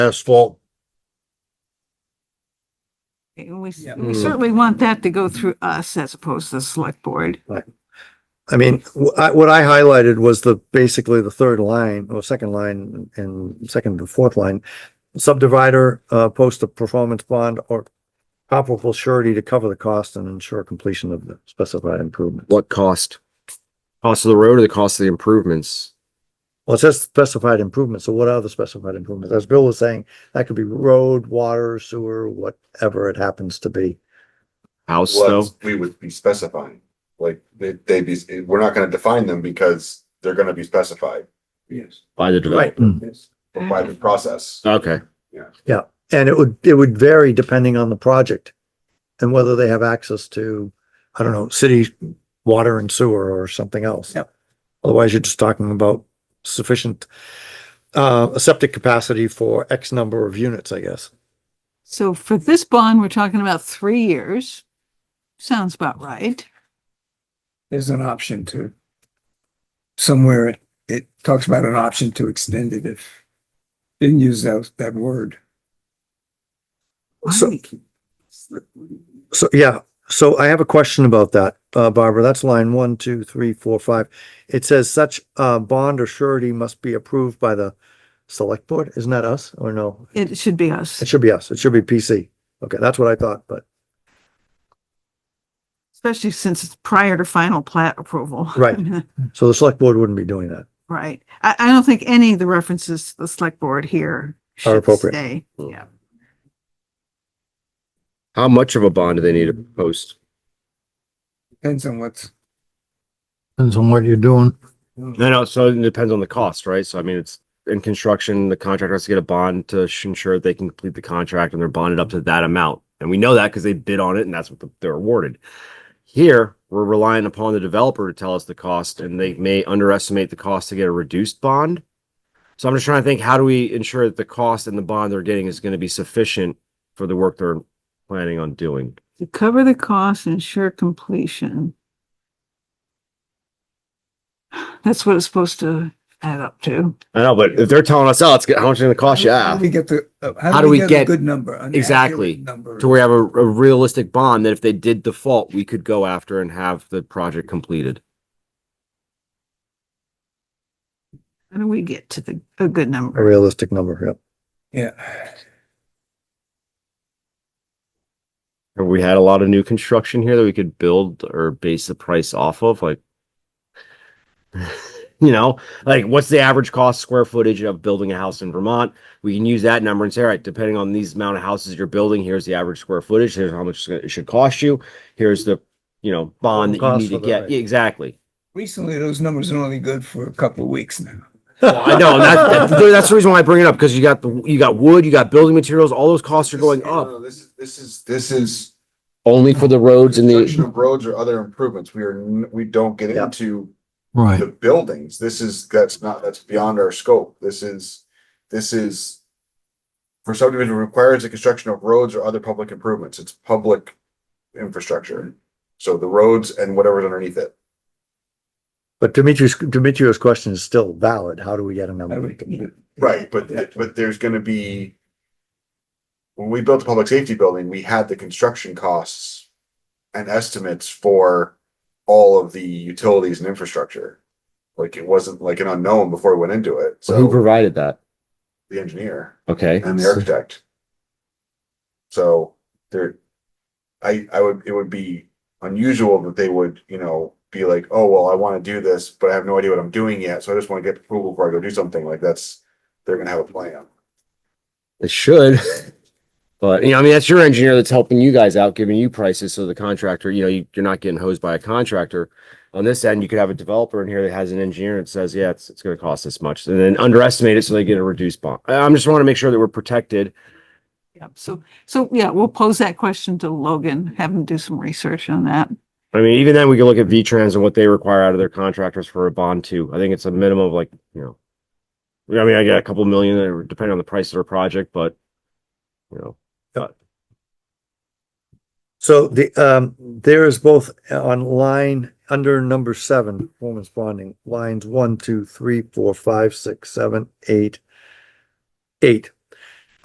asphalt. And We, s- Yeah. Hmm. we certainly want that to go through us as opposed to the select board. I mean, wh- I- what I highlighted was the, basically the third line or second line and second and fourth line. Subdivider, uh, post a performance bond or comparable surety to cover the cost and ensure completion of the specified improvement. What cost? Cost of the road or the cost of the improvements? Well, it says specified improvements, so what are the specified improvements? As Bill was saying, that could be road, water, sewer, whatever it happens to be. House though? what we would be specifying. Like, they, they'd be, we're not gonna define them because they're gonna be specified Yes. By the Right. developer. Yes. by the process. Okay, And it would, it would vary depending on the project and whether they have access to, I don't know, city water and sewer or something else. Yep. Otherwise, you're just talking about sufficient, uh, septic capacity for X number of units, I guess. So for this bond, we're talking about three years. Sounds about right. There's an option to. Somewhere it, it talks about an option to extend it if. Didn't use that, that word. So- So, yeah, so I have a question about that, uh, Barbara, that's line one, two, three, four, five. It says such, uh, bond or surety must be approved by the select board, isn't that us or no? It should be us, It should be us, it should be PC. Okay, that's what I thought, but, especially since it's prior to final plat approval. Right. so the select board wouldn't be doing that. Right. I, I don't think any of the references to the select board here Are should appropriate. Hmm. stay. Yeah. how much of a bond do they need to post? Depends on what's. Depends on what you're doing. No, no, so it depends on the cost, right? So I mean, it's in construction, the contractor has to get a bond to sh- ensure that they can complete the contract and they're bonded up to that amount. And we know that because they bid on it and that's what the- they're awarded. Here, we're relying upon the developer to tell us the cost and they may underestimate the cost to get a reduced bond. So I'm just trying to think, how do we ensure that the cost and the bond they're getting is going to be sufficient for the work they're planning on doing? To cover the cost and ensure completion. That's what it's supposed to add up to. I know, but if they're telling us, oh, it's g- how much it's going to cost you? How ah, do we get the, uh, how do we get a good number? an accurate Exactly. Number. to where we have a, a realistic bond that if they did default, we could go after and have the project completed. How do we get to the, a good A number? realistic number, yep. Yeah. Have we had a lot of new construction here that we could build or base the price off of? Like, you know, like what's the average cost square footage of building a house in Vermont? We can use that number and say, all right, depending on these amount of houses you're building, here's the average square footage. Here's how much it should cost you. Here's the, you know, bond that you Cost need to for the- get. Yeah, Exactly. Recently, those numbers are only good for a couple of weeks now. Well, I know and that, that- that's the reason why I bring it up because you got the you got wood, you got building materials, all those costs are going up. This is, this is, this is. Only for the roads and construction the of Roads or other improvements, we are, n- we don't get Yeah. into Right. the buildings, this is, that's not, that's beyond our scope, this is, this is. For subdivision requires the construction of roads or other public improvements, it's public infrastructure, so the roads and whatever's underneath it. But Dimitri's, Dimitri's question is still valid. How do we get a I number? would- Right, but, th- but there's gonna be. When we built the public safety building, we had the construction costs. And estimates for all of the utilities and infrastructure. Like it wasn't like an unknown before we went into it, who so provided that? the engineer Okay. and the architect. So there, I, I would, it would be unusual that they would, you know, be like, oh, well, I wanna do this, but I have no idea what I'm doing yet, so I just wanna get approval before I go do something, like that's, they're gonna have a plan. It should. But you know, I mean, that's your engineer that's helping you guys out, giving you prices. So the contractor, you know, you, you're not getting hosed by a contractor. On this end, you could have a developer in here that has an engineer that says, yeah, it's, it's going to cost this much and then underestimate it. So they get a reduced bond. I- I'm just want to make sure that we're protected. Yep. So, so yeah, we'll pose that question to Logan, have him do some research on that. I mean, even then we can look at V-Trans and what they require out of their contractors for a bond too. I think it's a minimum of like, you know. I mean, I got a couple million uh, depending on the price of their project, but you know, So the, um, there is both on line, under number seven, performance bonding, lines one, two, three, four, five, six, seven, eight, eight.